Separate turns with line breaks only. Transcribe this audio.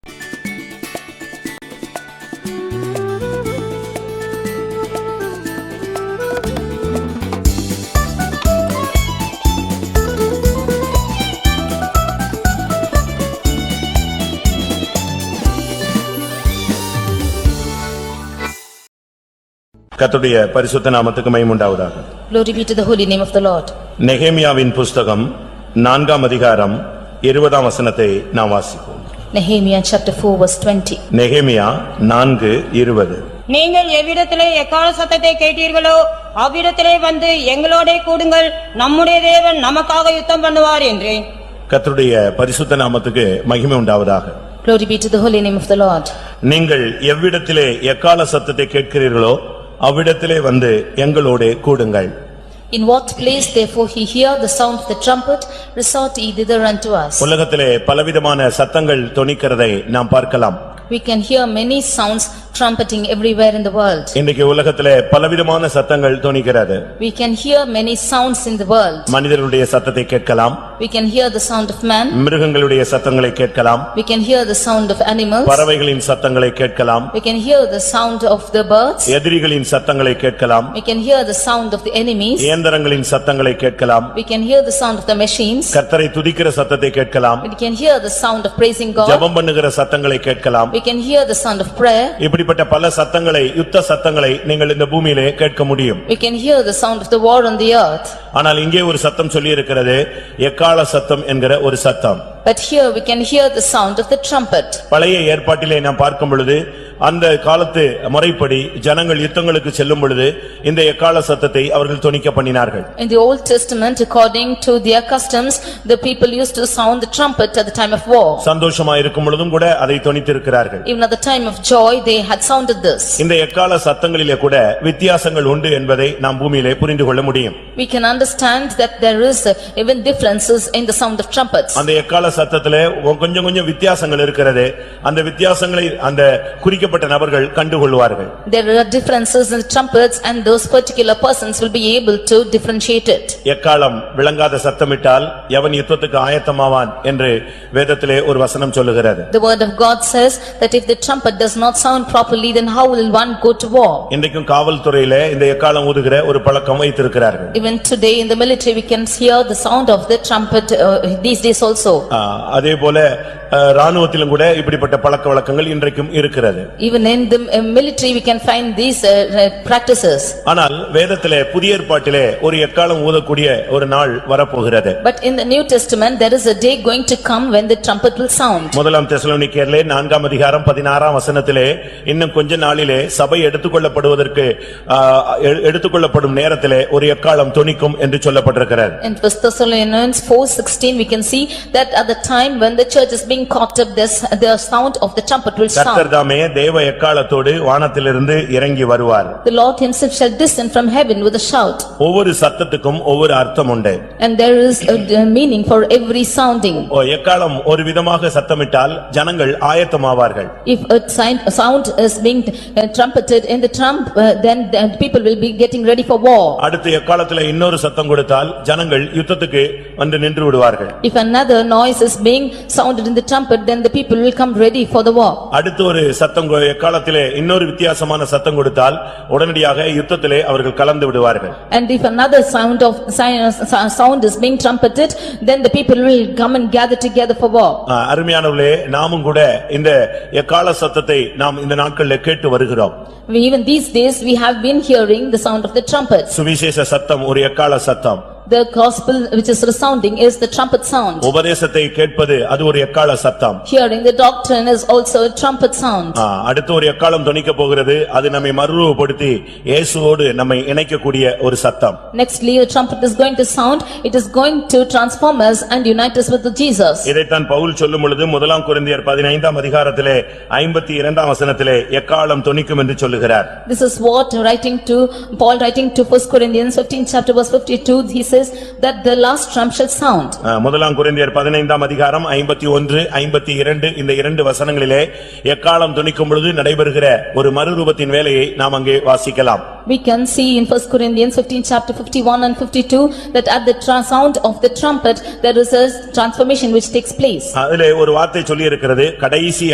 கர்த்தருடைய பரிசுத்த நாமத்துக்கு மகிமை உண்டாவதாக
Glory be to the holy name of the Lord.
நெகேமியாவின் புஸ்தகம் நான்காம் அதிகாரம் இருபதாம் வசனத்தை நாம் வாசிப்போம்
Nehemiah chapter 4 verse 20.
நெகேமியா நான்கு இருபது
நீங்கள் எவ்விடத்திலே எக்கால சத்தத்தை கேட்டீர்களோ அவ்விடத்திலே வந்து எங்களோடே கூடுங்கள் நம்முடைய தேவன் நமக்காக யுத்தம் பண்ணுவார் என்றேன்
கர்த்தருடைய பரிசுத்த நாமத்துக்கு மகிமை உண்டாவதாக
Glory be to the holy name of the Lord.
நீங்கள் எவ்விடத்திலே எக்கால சத்தத்தை கேட்கிறீர்களோ அவ்விடத்திலே வந்து எங்களோடு கூடுங்கள்
In what place therefore he hear the sound of the trumpet, resort ye thither unto us.
உலகத்திலே பலவிதமான சத்தங்கள் தொனிக்கிறதை நாம் பார்க்கலாம்
We can hear many sounds trumpeting everywhere in the world.
இன்றைக்கு உலகத்திலே பலவிதமான சத்தங்கள் தொனிக்கிறது
We can hear many sounds in the world.
மனிதர்களுடைய சத்தத்தை கேட்கலாம்
We can hear the sound of man,
மிருகங்களுடைய சத்தங்களை கேட்கலாம்
we can hear the sound of animals,
பறவைகளின் சத்தங்களை கேட்கலாம்
we can hear the sound of the birds,
எதிரிகளின் சத்தங்களை கேட்கலாம்
we can hear the sound of the enemies,
இயந்திரங்களின் சத்தங்களை கேட்கலாம்
we can hear the sound of the machines,
கர்த்தரை துதிக்கிற சத்தத்தை கேட்கலாம்
we can hear the sound of praising God,
ஜெபம் பண்ணுகிற சத்தங்களை கேட்கலாம்
we can hear the sound of prayer,
இப்படிப்பட்ட பல சத்தங்களை யுத்த சத்தங்களை நீங்கள் இந்த பூமியிலே கேட்க முடியும்
we can hear the sound of the war on the earth.
ஆனால் இங்கே ஒரு சத்தம் சொல்லியிருக்கிறது எக்கால சத்தம் என்கிற ஒரு சத்தம்
But here we can hear the sound of the trumpet.
பழைய ஏற்பாட்டிலே நாம் பார்க்கும் பொழுது அந்த காலத்து முறைப்படி ஜனங்கள் யுத்தங்களுக்கு செல்லும் பொழுது இந்த எக்கால சத்தத்தை அவர்கள் தொனிக்க பண்ணினார்கள்
In the Old Testament, according to their customs, the people used to sound the trumpet at the time of war.
சந்தோஷமா இருக்கும் பொழுதும் கூட அதை தொனித்திருக்கிறார்கள்
Even at the time of joy, they had sounded this.
இந்த எக்கால சத்தங்களிலே கூட வித்தியாசங்கள் உண்டு என்பதை நாம் பூமியிலே புரிந்து கொள்ள முடியும்
We can understand that there is uh, even differences in the sound of trumpets.
அந்த எக்கால சத்தத்திலே ஒ- கொஞ்சம் கொஞ்சம் வித்தியாசங்கள் இருக்கிறது அந்த வித்தியாசங்களை அந்த குறிக்கப்பட்ட நபர்கள் கண்டுகொள்வார்கள்
There are differences in the trumpets and those particular persons will be able to differentiate it.
எக்காலம் விளங்காத சத்தமிட்டால் எவன் யுத்தத்துக்கு ஆயத்தமாவான் என்று வேதத்திலே ஒரு வசனம் சொல்லுகிறது
The word of God says that if the trumpet does not sound properly, then how will one go to war?
இன்றைக்கும் காவல்துறையிலே இந்த எக்காலம் ஊதுகிற ஒரு பழக்கம் வைத்திருக்கிறார்கள்
Even today in the military, we can hear the sound of the trumpet uh, these days also.
ஆ, அதே போல ஆ, ராணுவத்திலும் கூட இப்படிப்பட்ட பழக்க வழக்கங்கள் இன்றைக்கும் இருக்கிறது
Even in the uh, military, we can find these uh, uh, practices.
ஆனால் வேதத்திலே புதிய ஏற்பாட்டிலே ஒரு எக்காலம் ஊதக்கூடிய ஒரு நாள் வரப்போகிறது
But in the New Testament, there is a day going to come when the trumpet will sound.
முதலாம் தெசலோனிக்கேர்லே நான்காம் அதிகாரம் பதினாறாம் வசனத்திலே இன்னும் கொஞ்ச நாளிலே சபை எடுத்துக்கொள்ளப்படுவதற்கு ஆ, எ- எடுத்துக்கொள்ளப்படும் நேரத்திலே ஒரு எக்காலம் தொனிக்கும் என்று சொல்லப்பட்டிருக்கிறது
In First Thessalonians 4:16, we can see that at the time when the church is being caught up, this the sound of the trumpet will sound.
கர்த்தர்தாமே தேவ எக்காலத்தோடு வானத்திலிருந்து இறங்கி வருவார்
The Lord himself shall descend from heaven with a shout,
ஒவ்வொரு சத்தத்துக்கும் ஒவ்வொரு அர்த்தம் உண்டு
and there is a a meaning for every sounding.
ஓ, எக்காலம் ஒரு விதமாக சத்தமிட்டால் ஜனங்கள் ஆயத்தமாவார்கள்
If a sign- a sound is being uh, trumpeted in the trump, uh, then the people will be getting ready for war.
அடுத்து எக்காலத்திலே இன்னொரு சத்தம் கொடுத்தால் ஜனங்கள் யுத்தத்துக்கு வந்து நின்று விடுவார்கள்
If another noise is being sounded in the trumpet, then the people will come ready for the war.
அடுத்து ஒரு சத்தம் கொ- எக்காலத்திலே இன்னொரு வித்தியாசமான சத்தம் கொடுத்தால் உடனடியாக யுத்தத்திலே அவர்கள் கலந்து விடுவார்கள்
And if another sound of, sign- uh, sound is being trumpeted, then the people will come and gather together for war.
ஆ, அருமையானவர்களே நாமும் கூட இந்த எக்கால சத்தத்தை நாம் இந்த நாட்களிலே கேட்டு வருகிறோம்
We- Even these days, we have been hearing the sound of the trumpets.
சுவிசேஷ சத்தம் ஒரு எக்கால சத்தம்
The gospel which is resounding is the trumpet sound.
உபதேசத்தை கேட்பது அது ஒரு எக்கால சத்தம்
Hearing the doctrine is also a trumpet sound.
ஆ, அடுத்து ஒரு எக்காலம் தொனிக்க போகிறது அது நம்மை மறுரூபப்படுத்தி இயேசுவோடு நம்மை இணைக்கக்கூடிய ஒரு சத்தம்
Nextly, a trumpet is going to sound, it is going to transform us and unite us with Jesus.
இதைத்தான் பவுல் சொல்லும் பொழுது முதலாம் கொரிந்தியர் பதினைந்தாம் அதிகாரத்திலே ஐம்பத்தி இரண்டாம் வசனத்திலே எக்காலம் தொனிக்கும் என்று சொல்லுகிறார்
This is what writing to, Paul writing to first Corinthians fifteen chapter verse fifty-two, he says that the last trump shall sound.
ஆ, முதலாம் கொரிந்தியர் பதினைந்தாம் அதிகாரம் ஐம்பத்தி ஒன்று ஐம்பத்தி இரண்டு இந்த இரண்டு வசனங்களிலே எக்காலம் துணிக்கும் பொழுது நடைபெறுகிற ஒரு மறுரூபத்தின் வேலையை நாம் அங்கே வாசிக்கலாம்
We can see in first Corinthians fifteen chapter fifty-one and fifty-two that at the tra- sound of the trumpet, there is a transformation which takes place.
அதிலே ஒரு வார்த்தை சொல்லியிருக்கிறது கடைசி